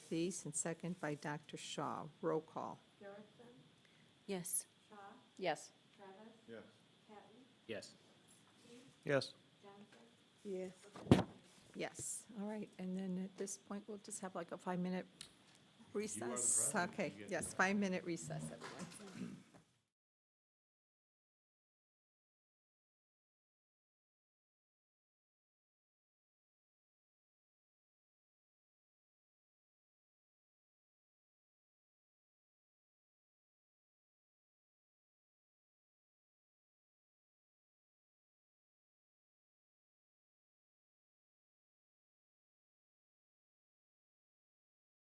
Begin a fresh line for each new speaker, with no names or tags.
Thies, and second by Dr. Shaw. Roll call.
Garrison,
Yes.
Shaw,
Yes.
Travis,
Yes.
Patton,
Yes.
Yes.
Johnson,
yes.
Yes, all right, and then at this point, we'll just have like a five-minute recess.
president.
Okay, yes, five-minute recess, everyone.